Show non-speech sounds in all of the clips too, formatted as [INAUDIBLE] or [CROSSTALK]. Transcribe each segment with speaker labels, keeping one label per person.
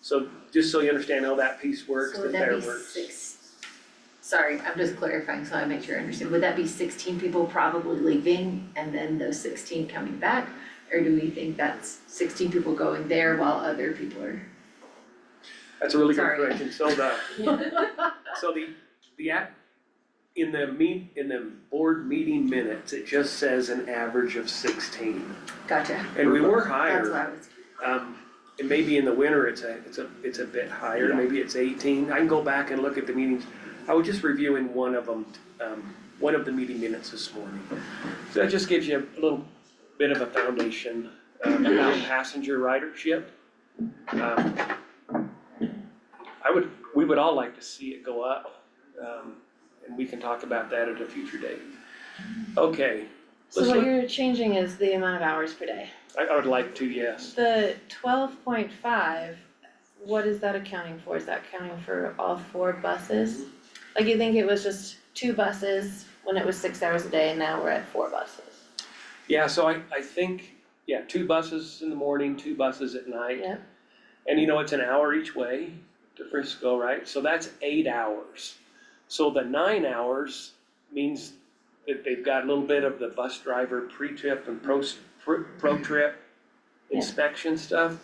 Speaker 1: So just so you understand how that piece works,
Speaker 2: So
Speaker 1: the
Speaker 2: would that
Speaker 1: fair
Speaker 2: be
Speaker 1: works.
Speaker 2: six? Sorry, I'm just clarifying so I make sure I understand. Would that be sixteen people probably leaving and then those sixteen coming back? Or do we think that's sixteen people going there while other people are?
Speaker 1: That's a really good
Speaker 2: Sorry.
Speaker 1: question, so
Speaker 2: [LAUGHS]
Speaker 1: the, so the, the act, in the meet, in the board meeting minutes, it just says an average of sixteen.
Speaker 2: Gotcha,
Speaker 1: And we were
Speaker 2: that's
Speaker 1: higher,
Speaker 2: why I was,
Speaker 1: um, and maybe in the winter, it's a, it's a, it's a bit higher,
Speaker 2: Yeah.
Speaker 1: maybe it's eighteen, I can go back and look at the meetings. I was just reviewing one of them, um, one of the meeting minutes this morning. So that just gives you a little bit of a foundation, um, about passenger ridership. Um, I would, we would all like to see it go up, um, and we can talk about that at a future date. Okay,
Speaker 3: So
Speaker 1: Let's
Speaker 3: what
Speaker 1: look-
Speaker 3: you're changing is the amount of hours per day.
Speaker 1: I, I would like to, yes.
Speaker 3: The twelve point five, what is that accounting for? Is that accounting for all four buses? Like you think it was just two buses when it was six hours a day and now we're at four buses?
Speaker 1: Yeah, so I, I think, yeah, two buses in the morning, two buses at night.
Speaker 3: Yep.
Speaker 1: And you know, it's an hour each way to Frisco, right? So that's eight hours. So the nine hours means that they've got a little bit of the bus driver pre-trip and pro, pro-trip
Speaker 3: Yeah.
Speaker 1: inspection stuff.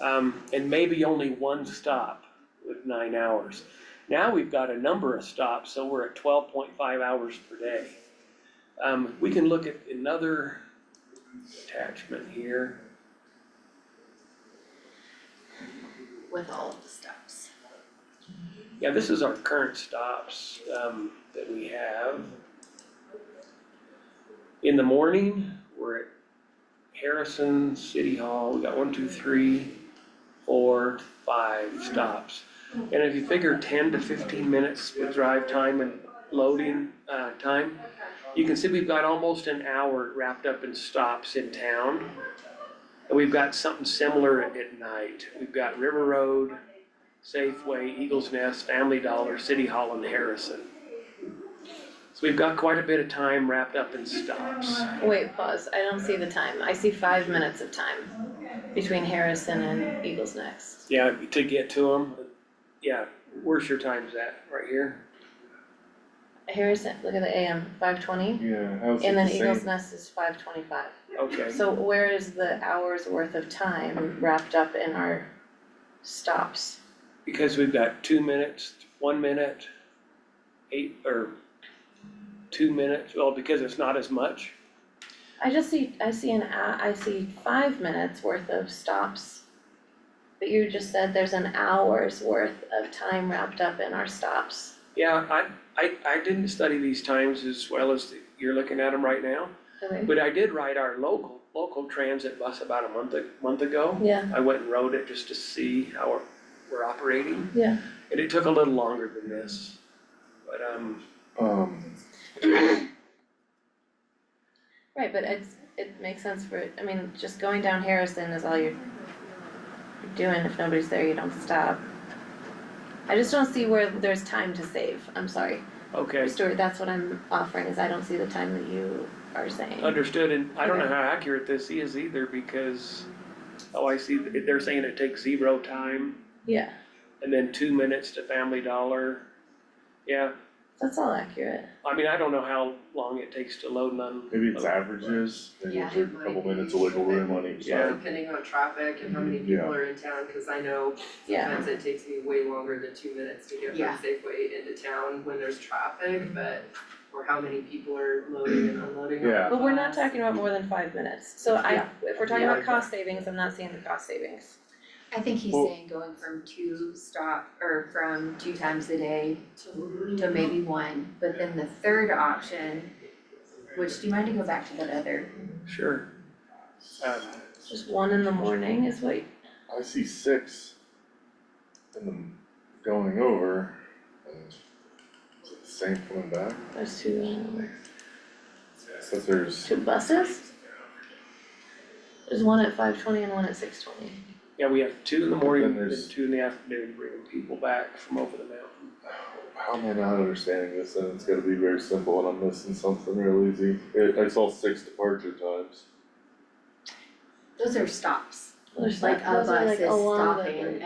Speaker 1: Um, and maybe only one stop with nine hours. Now we've got a number of stops, so we're at twelve point five hours per day. Um, we can look at another attachment here.
Speaker 2: with all of the stops.
Speaker 1: Yeah, this is our current stops, um, that we have. In the morning, we're at Harrison City Hall, we got one, two, three, four, five stops. And if you figure ten to fifteen minutes with drive time and loading, uh, time, you can see we've got almost an hour wrapped up in stops in town. And we've got something similar at night, we've got River Road, Safeway, Eagles Nest, Family Dollar, City Hall, and Harrison. So we've got quite a bit of time wrapped up in stops.
Speaker 3: Wait, pause, I don't see the time, I see five minutes of time between Harrison and Eagles Next.
Speaker 1: Yeah, to get to them, yeah, where's your times at, right here?
Speaker 3: Harrison, look at the AM, five twenty,
Speaker 4: Yeah, I was
Speaker 3: and then
Speaker 4: just saying,
Speaker 3: Eagles Nest is five twenty-five.
Speaker 1: Okay,
Speaker 3: So where is the hour's worth of time wrapped up in our stops?
Speaker 1: because we've got two minutes, one minute, eight, or two minutes, well, because it's not as much.
Speaker 3: I just see, I see an, hou- I see five minutes worth of stops. But you just said there's an hour's worth of time wrapped up in our stops.
Speaker 1: Yeah, I, I, I didn't study these times as well as you're looking at them right now,
Speaker 3: Okay.
Speaker 1: but I did ride our local, local transit bus about a month, a month ago.
Speaker 3: Yeah,
Speaker 1: I went and rode it just to see how we're, we're operating.
Speaker 3: Yeah.
Speaker 1: And it took a little longer than this, but, um,
Speaker 4: um,
Speaker 3: right, but it's, it makes sense for, I mean, just going down Harrison is all you're you're doing. If nobody's there, you don't stop. I just don't see where there's time to save. I'm sorry.
Speaker 1: okay,
Speaker 3: Stuart, that's what I'm offering is I don't see the time that you are saying.
Speaker 1: understood, and I don't know
Speaker 3: Okay.
Speaker 1: how accurate this is either, because, oh, I see, that they're saying it takes zero time,
Speaker 3: Yeah,
Speaker 1: and then two minutes to Family Dollar. Yeah,
Speaker 3: that's all accurate.
Speaker 1: I mean, I don't know how long it takes to load and un-
Speaker 4: maybe it's averages, maybe
Speaker 5: Yeah,
Speaker 4: it's a
Speaker 5: it
Speaker 4: couple
Speaker 5: might
Speaker 4: minutes
Speaker 5: be.
Speaker 4: of wiggle room on each
Speaker 1: Yeah.
Speaker 4: side.
Speaker 5: Depending on traffic and how many
Speaker 4: Mm-hmm. Yeah.
Speaker 5: people are in town, cause I know
Speaker 3: Yeah.
Speaker 5: sometimes it takes me way longer than two minutes to get
Speaker 2: Yeah.
Speaker 5: from Safeway into town when there's traffic, but or how many people are loading and unloading on the
Speaker 4: Yeah.
Speaker 3: But we're not
Speaker 5: bus.
Speaker 3: talking about more than five minutes, so I,
Speaker 5: Yeah.
Speaker 3: if we're talking
Speaker 5: Yeah,
Speaker 3: about cost savings, I'm not seeing the cost savings.
Speaker 2: I think he's
Speaker 4: Well-
Speaker 2: saying going from two stop, or from two times a day to to maybe one, but then the third option, which, do you mind to go back to that other?
Speaker 1: sure. Um,
Speaker 3: Just one in the morning is what,
Speaker 4: I see six in them going over, and is it the same coming back?
Speaker 3: there's two, uh,
Speaker 4: So there's,
Speaker 3: two buses? There's one at five twenty and one at six twenty.
Speaker 1: yeah, we have two in the morning,
Speaker 4: Then
Speaker 1: and
Speaker 4: there's-
Speaker 1: two in the afternoon, bringing people back from over the mountain.
Speaker 4: how am I not understanding this, and it's gotta be very simple, and I'm missing something real easy. I, I saw six departure times.
Speaker 2: Those are stops,
Speaker 3: There's
Speaker 2: like
Speaker 3: like,
Speaker 2: a
Speaker 3: those are
Speaker 2: bus
Speaker 3: like
Speaker 2: is
Speaker 3: along the.
Speaker 2: stopping